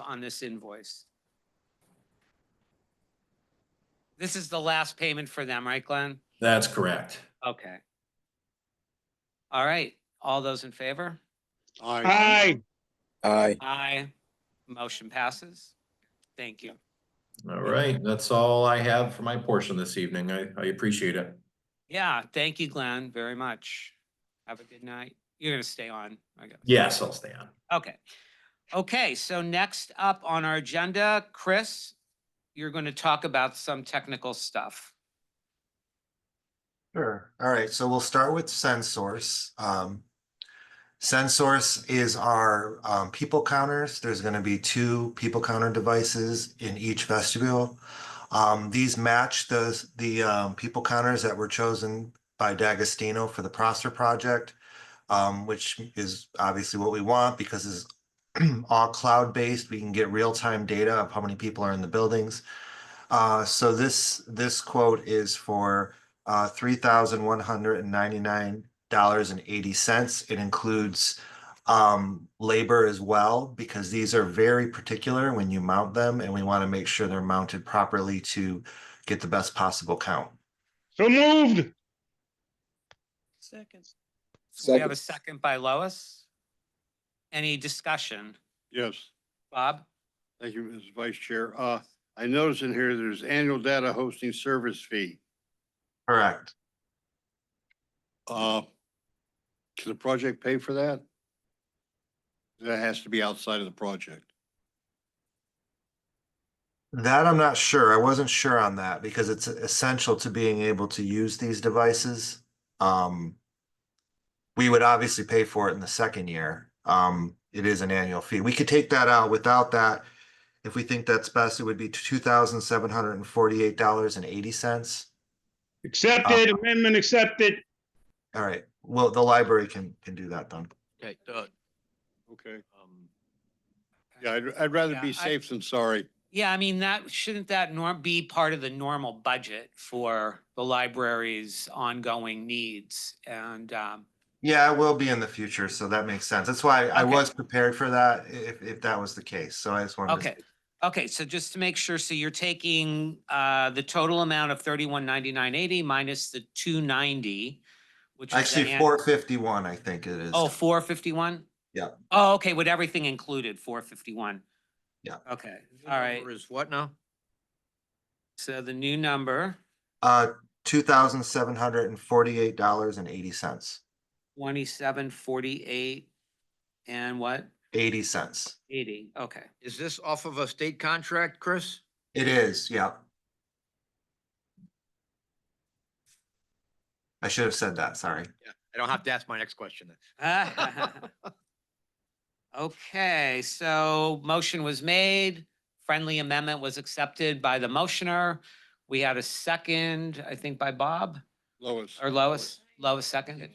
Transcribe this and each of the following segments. on this invoice. This is the last payment for them, right, Glenn? That's correct. Okay. All right, all those in favor? Aye. Aye. Aye. Motion passes. Thank you. All right, that's all I have for my portion this evening. I, I appreciate it. Yeah, thank you, Glenn, very much. Have a good night. You're gonna stay on, I guess. Yes, I'll stay on. Okay. Okay, so next up on our agenda, Chris, you're going to talk about some technical stuff. Sure. All right. So we'll start with Sensource. Um, Sensource is our um, people counters. There's going to be two people counter devices in each vestibule. Um, these match the the um, people counters that were chosen by D'Agostino for the Prosser project, um, which is obviously what we want because it's all cloud based. We can get real time data of how many people are in the buildings. Uh, so this this quote is for uh, three thousand one hundred and ninety-nine dollars and eighty cents. It includes um, labor as well, because these are very particular when you mount them, and we want to make sure they're mounted properly to get the best possible count. So moved. Seconds. So We have a Second. second by Lois. Any discussion? Yes, Bob? thank you, Mr. Vice Chair. Uh, I notice in here there's annual data hosting service fee. Correct. Uh, can the project pay for that? That has to be outside of the project. That I'm not sure. I wasn't sure on that because it's essential to being able to use these devices. Um, we would obviously pay for it in the second year. Um, it is an annual fee. We could take that out without that. If we think that's best, it would be two thousand seven hundred and forty-eight dollars and eighty cents. Uh, Accepted, amendment accepted. All right, well, the library can, can do that then. Okay, Doug, Okay. um, Yeah, I'd, I'd rather Yeah, I- be safe than sorry. Yeah, I mean, that, shouldn't that norm, be part of the normal budget for the library's ongoing needs? And, um, Yeah, it will be in the future, so that makes sense. That's why I Okay. was prepared for that, i- if, if that was the case, so I just wanted to. okay, okay, so just to make sure, so you're taking, uh, the total amount of thirty-one ninety-nine eighty minus the two ninety, which is. the Actually, an- four fifty-one, I think it is. Oh, four fifty-one? Yeah. Oh, okay, with everything included, four fifty-one. Yeah. Okay, your all right. number Is what now? So the new number, Uh, two thousand seven hundred and forty-eight dollars and eighty cents, twenty-seven forty-eight and what? eighty cents. Eighty, okay. Is this off of a state contract, Chris? It is, yeah. I should have said that, sorry. I don't have to ask my next question then. Okay, so motion was made, friendly amendment was accepted by the motioner. We had a second, I think by Bob Lois. or Lois, Lois seconded.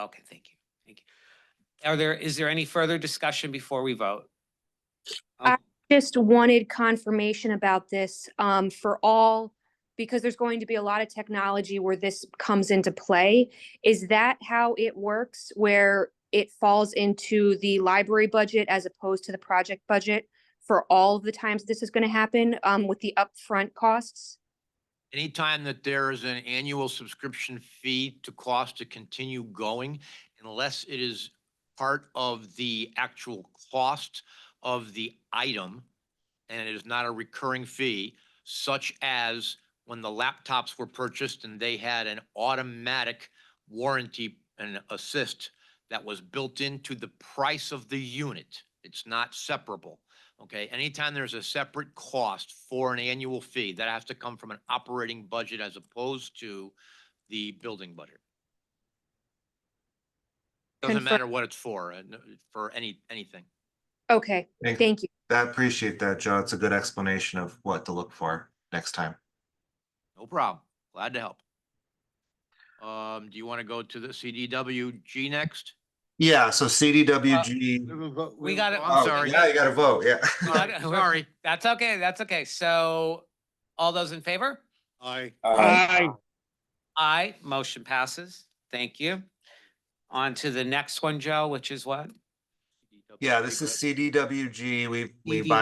Okay, thank you, thank you. Are there, is there any further discussion before we vote? I- just wanted confirmation about this um, for all, because there's going to be a lot of technology where this comes into play. Is that how it works, where it falls into the library budget as opposed to the project budget for all of the times this is going to happen um, with the upfront costs? Anytime that there is an annual subscription fee to cost to continue going, unless it is part of the actual cost of the item, and it is not a recurring fee, such as when the laptops were purchased and they had an automatic warranty and assist that was built into the price of the unit. It's not separable. Okay, anytime there's a separate cost for an annual fee, that has to come from an operating budget as opposed to the building budget. Doesn't Confir- matter what it's for, uh, no- for any, anything. Okay, Thank- thank you. I appreciate that, Joe. It's a good explanation of what to look for next time. No problem. Glad to help. Um, do you want to go to the CDWG next? Yeah, so CDWG. We got it. Oh, I'm sorry. Yeah, you gotta vote, yeah. Uh, Sorry. Sorry. That's okay, that's okay. So all those in favor? Aye. Aye. Aye, motion passes. Thank you. On to the next one, Joe, which is what? Yeah, this is CDWG. We, we CDWG. buy